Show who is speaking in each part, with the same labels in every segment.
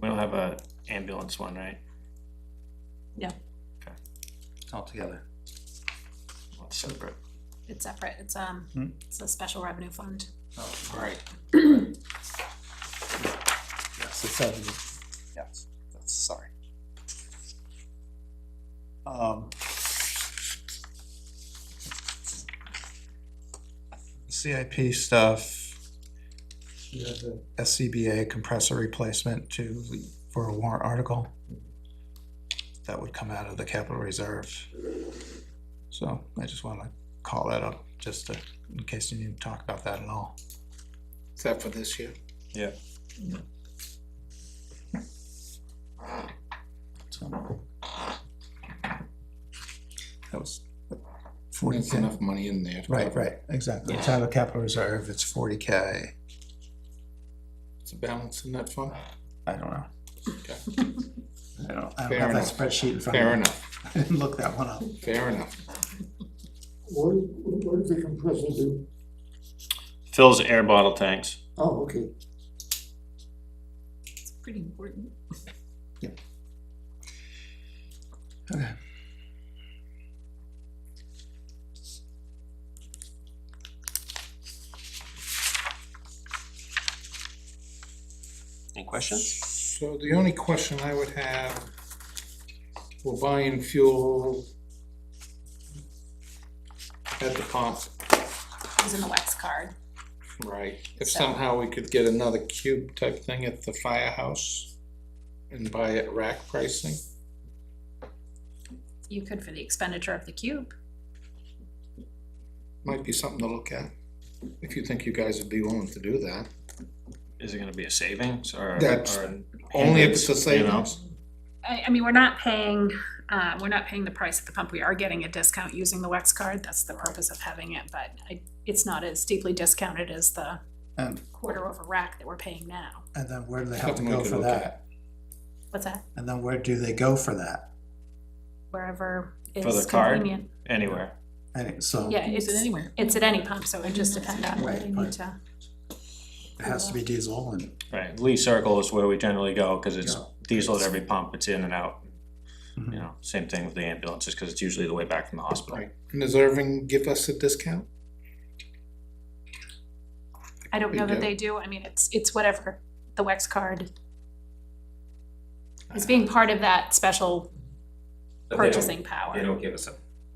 Speaker 1: We don't have a ambulance one, right?
Speaker 2: altogether.
Speaker 1: Well, It's separate.
Speaker 3: It's separate, it's, um,
Speaker 2: Hmm.
Speaker 3: it's a special revenue fund.
Speaker 2: Oh,
Speaker 1: Right.
Speaker 2: Yes, it's seven. Yes, that's, sorry. Um. CIP stuff. You have the SCBA compressor replacement to, for a warrant article. That would come out of the capital reserve. So I just wanna call that up, just to, in case you need to talk about that at all.
Speaker 4: Is that for this year?
Speaker 1: Yeah.
Speaker 2: So. That was forty
Speaker 4: There's
Speaker 2: K.
Speaker 4: enough money in there.
Speaker 2: Right, right, exactly. It's out of capital reserve, it's forty K.
Speaker 4: It's a balance in that fund.
Speaker 2: I don't know.
Speaker 4: Okay.
Speaker 2: I don't, I don't
Speaker 4: Fair
Speaker 2: have that
Speaker 4: enough.
Speaker 2: spreadsheet in front
Speaker 4: Fair
Speaker 2: of me.
Speaker 4: enough,
Speaker 2: I didn't look that one up.
Speaker 4: fair enough.
Speaker 5: What, what does the compressor do?
Speaker 1: Fills air bottle tanks.
Speaker 5: Oh, okay.
Speaker 3: It's pretty important.
Speaker 2: Okay.
Speaker 6: Any questions?
Speaker 4: So the only question I would have, we're buying fuel at the pump,
Speaker 3: It's in the wax card.
Speaker 4: right? If somehow we could get another cube type thing at the firehouse and buy at rack pricing,
Speaker 3: You could for the expenditure of the cube.
Speaker 4: might be something to look at. If you think you guys would be willing to do that,
Speaker 1: Is it gonna be a savings or?
Speaker 4: That's-
Speaker 1: or an
Speaker 4: only if it's a
Speaker 1: hindrance, you know?
Speaker 4: savings.
Speaker 3: I, I mean, we're not paying, uh, we're not paying the price at the pump. We are getting a discount using the wax card. That's the purpose of having it, but I, it's not as deeply discounted as the
Speaker 2: And,
Speaker 3: quarter over rack that we're paying now.
Speaker 2: and then where do they have to
Speaker 4: Something we
Speaker 2: go
Speaker 4: could
Speaker 2: for
Speaker 4: look
Speaker 2: that?
Speaker 3: What's that?
Speaker 2: And then where do they go for that?
Speaker 3: Wherever
Speaker 1: For the
Speaker 3: is
Speaker 1: card?
Speaker 3: convenient.
Speaker 1: Anywhere.
Speaker 2: And it- so
Speaker 3: Yeah,
Speaker 7: Use
Speaker 3: it's,
Speaker 7: it anywhere.
Speaker 3: it's at any pump, so it just depends on what
Speaker 2: Right,
Speaker 3: you need
Speaker 2: right.
Speaker 3: to.
Speaker 2: it has to be diesel and,
Speaker 1: Right, Lee Circle is where we generally go, cause it's
Speaker 2: Yeah.
Speaker 1: diesel at every pump, it's in and out, you
Speaker 2: Mhm.
Speaker 1: know, same thing with the ambulances, cause it's usually the way back from the hospital.
Speaker 4: Right, and does Irving give us a discount?
Speaker 3: I don't know that
Speaker 4: do.
Speaker 3: they do, I mean, it's, it's whatever, the Wex card. It's being part of that special
Speaker 6: But they don't-
Speaker 3: purchasing
Speaker 6: They
Speaker 3: power.
Speaker 6: don't give us a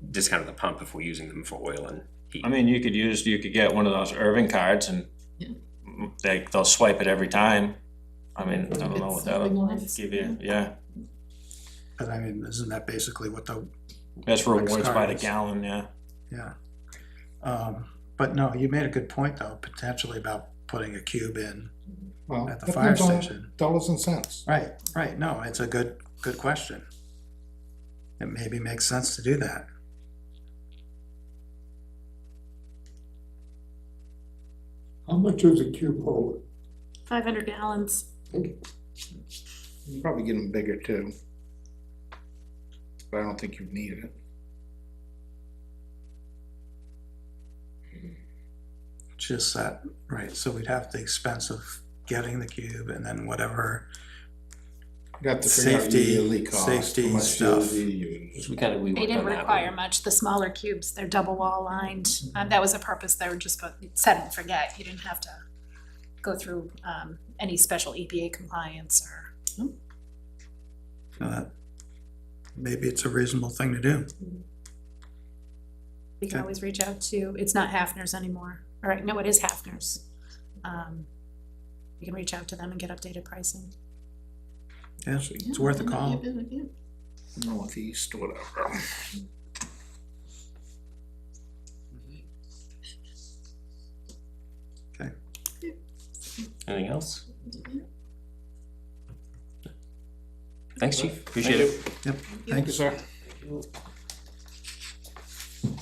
Speaker 6: discount at the pump if we're using them for oil and heat.
Speaker 1: I mean, you could use, you could get one of those Irving cards and
Speaker 7: Yeah.
Speaker 1: they, they'll swipe it every time. I mean, I don't know what that'll
Speaker 7: It's-
Speaker 1: give you, yeah,
Speaker 2: but I mean, isn't that basically what the,
Speaker 1: that's rewards by the
Speaker 2: cards.
Speaker 1: gallon, yeah.
Speaker 2: yeah. Um, but no, you made a good point though, potentially about putting a cube in
Speaker 4: Well,
Speaker 2: at the
Speaker 4: that
Speaker 2: fire
Speaker 4: depends on
Speaker 2: station.
Speaker 4: Dollars and cents.
Speaker 2: Right, right, no, it's a good, good question. It maybe makes sense to do that.
Speaker 5: How much does a cube hold?
Speaker 3: Five hundred gallons.
Speaker 4: You Probably get them bigger too. But I don't think you need it.
Speaker 2: Just that, right, so we'd have the expense of getting the cube and then whatever,
Speaker 4: You have to figure out your
Speaker 2: Safety-
Speaker 4: yearly cost,
Speaker 2: safety
Speaker 4: how much
Speaker 2: stuff.
Speaker 4: yearly you use.
Speaker 6: we kind of, we
Speaker 3: They didn't require much, the smaller cubes, they're double wall lined, um, that was a purpose, they were just, but set and forget, you didn't have to go through, um, any special EPA compliance or.
Speaker 2: uh, maybe it's a reasonable thing to do.
Speaker 3: We can
Speaker 2: Okay.
Speaker 3: always reach out to, it's not Hafner's anymore, all right, no, it is Hafner's. Um, you can reach out to them and get updated pricing.
Speaker 2: Yeah, it's worth a call.
Speaker 7: Yeah, yeah, yeah.
Speaker 4: Northeast, whatever.
Speaker 6: Anything else? Thanks, chief. Appreciate it.
Speaker 2: Thank you.
Speaker 4: sir.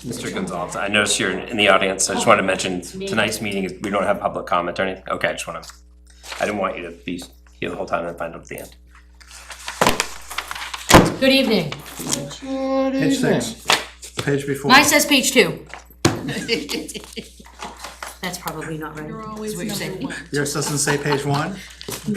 Speaker 6: Mr. Gonzalez, I noticed you're in the audience. I just wanted to mention tonight's meeting, is we don't have public comment or anything. Okay, I just want to, I didn't want you to be here the whole time and find out at the end.
Speaker 7: Good evening.
Speaker 4: Good
Speaker 2: Page
Speaker 4: evening.
Speaker 2: six, page before.
Speaker 7: Mine says page two. That's probably not right.
Speaker 3: You're always
Speaker 7: That's what you're
Speaker 3: number
Speaker 7: saying.
Speaker 3: one.
Speaker 2: Yours doesn't say page one?